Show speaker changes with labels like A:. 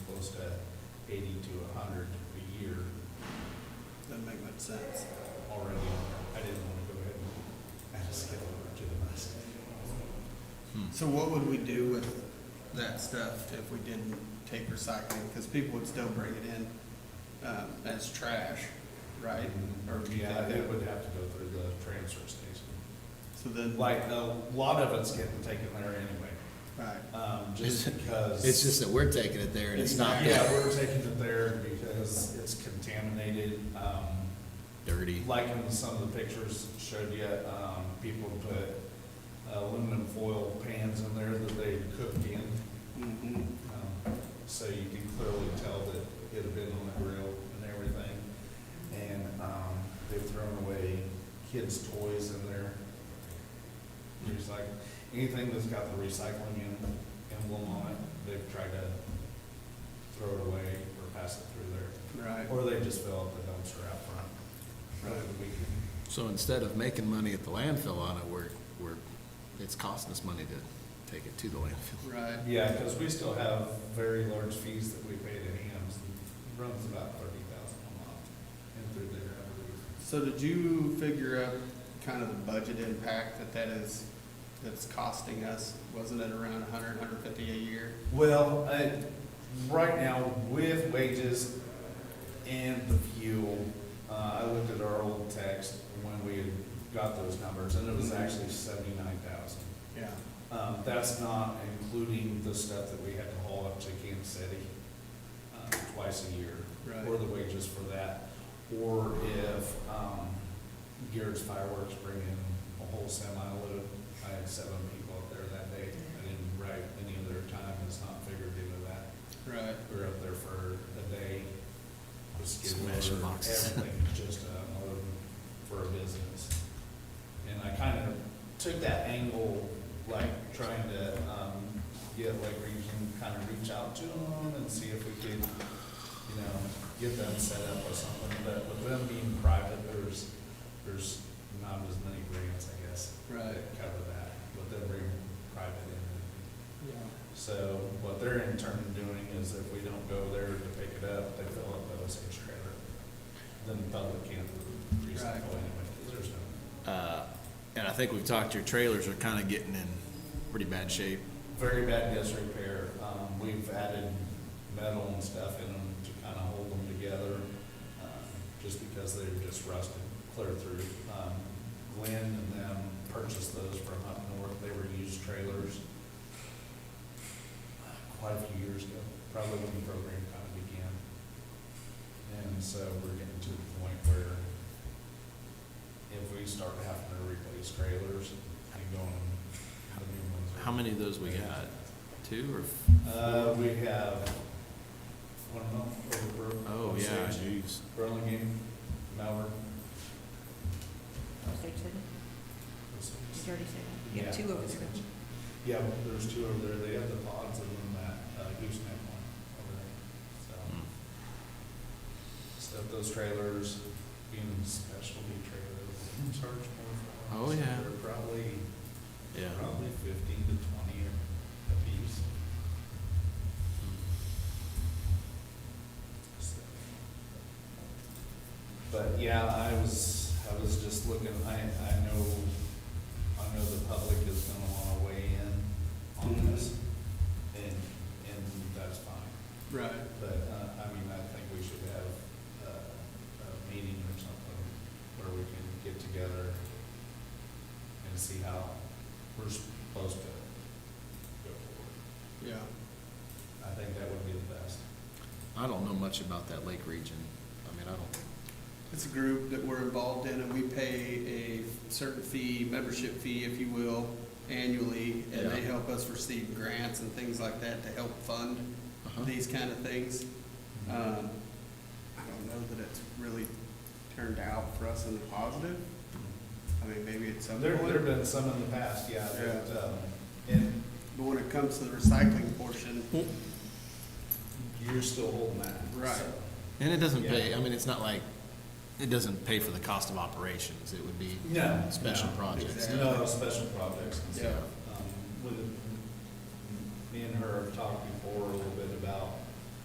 A: eighty to a hundred a year
B: Doesn't make much sense.
A: already. I didn't wanna go ahead and just skip over to the rest.
C: Hmm.
B: So what would we do with that stuff if we didn't take recycling? Because people would still bring it in um, as trash, right? Or do
A: Mm-hmm.
B: you
A: Yeah,
B: think
A: it
B: that-
A: would have to go through the transfer station.
B: So then, right,
A: Like, a lot of it's getting taken there anyway, um, just because.
C: It's just that we're taking it there and it's not
A: Yeah,
C: that
A: we're taking it there because it's contaminated, um,
C: dirty.
A: like in some of the pictures showed you, um, people put aluminum foil pans in there that they cooked in.
B: mhm.
A: Um, So you can clearly tell that it had been on the grill and everything. And, um, they've thrown away kids' toys in there. There's like, anything that's got the recycling em- emblem on it, they've tried to throw it away or pass it through there.
B: right,
A: Or they just fill up the dumpster out front. Rather than we can,
C: So instead of making money at the landfill on it, we're, we're, it's costing us money to take it to the landfill.
B: right.
A: yeah, because we still have very large fees that we pay to hams. and Runs about thirty thousand a month and through there, I believe.
B: So did you figure out kind of the budget impact that that is, that's costing us? Wasn't it around a hundred, hundred fifty a year?
A: Well, uh, right now with wages and the fuel, uh, I looked at our old text when we had got those numbers and it was actually seventy-nine thousand.
B: Yeah.
A: Um, that's not including the stuff that we had to haul up to Kansas City, um, twice a year.
B: Right.
A: Or the wages for that, or if, um, Garrett's Fireworks bring in a whole semi load. I had seven people up there that day, I didn't write any of their time, it's not figured into that.
B: Right,
A: We were up there for a day, just getting
C: Smashing boxes.
A: everything, just a load for a business. And I kind of took that angle, like trying to, um, get like region, kind of reach out to them and see if we could, you know, get them set up with something, but with them being private, there's, there's not as many grants, I guess,
B: right.
A: that cover that, with them being private and
B: Yeah.
A: so what they're in turn doing is if we don't go there to pick it up, they fill up the OSH trailer. Then the public can't recycle anyway, 'cause there's no,
C: Uh, and I think we've talked, your trailers are kinda getting in pretty bad shape.
A: very bad disrepair. Um, we've added metal and stuff in them to kind of hold them together, um, just because they're just rusted clear through. Um, Glenn and them purchased those from up north, they were used trailers quite a few years ago, probably when the program kind of began. And so we're getting to the point where if we start having to replace trailers and going, the new ones. are-
C: How many of those we got? Two or?
A: Uh, we have one a month over. Bur-
C: Oh,
A: Osage,
C: yeah, jeez.
A: Burlingame, Malvern.
D: Osage City,
A: Osage.
D: you already said that. You
A: Yeah,
D: have two over
A: Osage.
D: there.
A: Yeah, well, there's two over there, they have the pods and then that, uh, gooseneck one over there, so.
C: Hmm.
A: Stuff those trailers, being specialty trailers, we charge more for them.
C: Oh,
A: so
C: yeah.
A: They're probably,
C: Yeah.
A: probably fifteen to twenty a piece.
C: hmm.
A: so. But yeah, I was, I was just looking, I, I know, I know the public is gonna wanna weigh in on this, and, and that's fine.
B: Right,
A: But, uh, I mean, I think we should have, uh, a meeting or something where we can get together and see how we're supposed to go forward.
B: yeah.
A: I think that would be the best.
C: I don't know much about that lake region. I mean, I don't,
B: It's a group that we're involved in, and we pay a certain fee, membership fee, if you will, annually, and they
C: Yeah.
B: help us receive grants and things like that to help fund
C: Uh-huh.
B: these kind of things.
A: Mm-hmm.
B: Um, I don't know that it's really turned out for us in the positive. I mean, maybe it's some
A: There,
B: point.
A: there've been some in the past, yeah,
B: Yeah.
A: but, um, and
B: But when it comes to the recycling portion,
A: you're still holding that.
B: Right.
A: so.
C: and it doesn't
A: Yeah.
C: pay, I mean, it's not like, it doesn't pay for the cost of operations. It would be
A: No.
C: special
A: no.
C: projects.
B: Exactly.
A: No, special projects and
B: Yeah.
A: stuff. Um, with, me and her have talked before a little bit